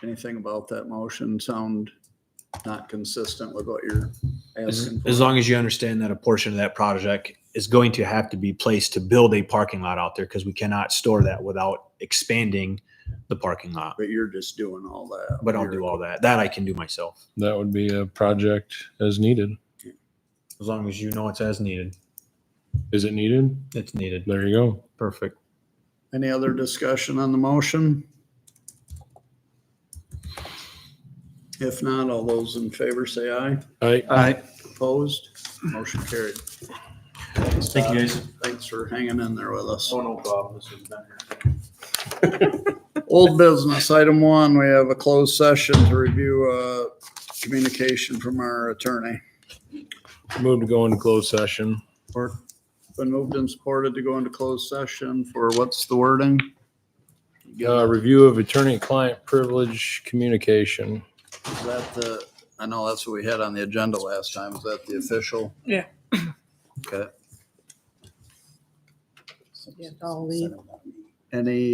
anything about that motion sound not consistent with what you're As, asking as for? long as you understand that a portion of that project is going to have to be placed to build a parking lot out there because we cannot store that without expanding the parking lot. But you're just doing all that. But I'll You're- do all that. That I can do myself That would be a project as needed. as long as you know it's as needed. Is it needed? It's needed. There you go. Perfect. Any other discussion on the motion? If not, all those in favor say aye. I, Aye. Opposed? Motion carried. Thank you, guys. Thanks for hanging in there with us. Oh, no problem. This has been Old business, item one, we have a closed session to review uh, communication from our attorney. moved to go into closed session. Or been moved and supported to go into closed session for what's the wording? Uh, review of attorney-client privilege communication. Is that the, I know that's what we had on the agenda last time. Is that the official? Yeah. Okay. Yeah, I'll leave. Any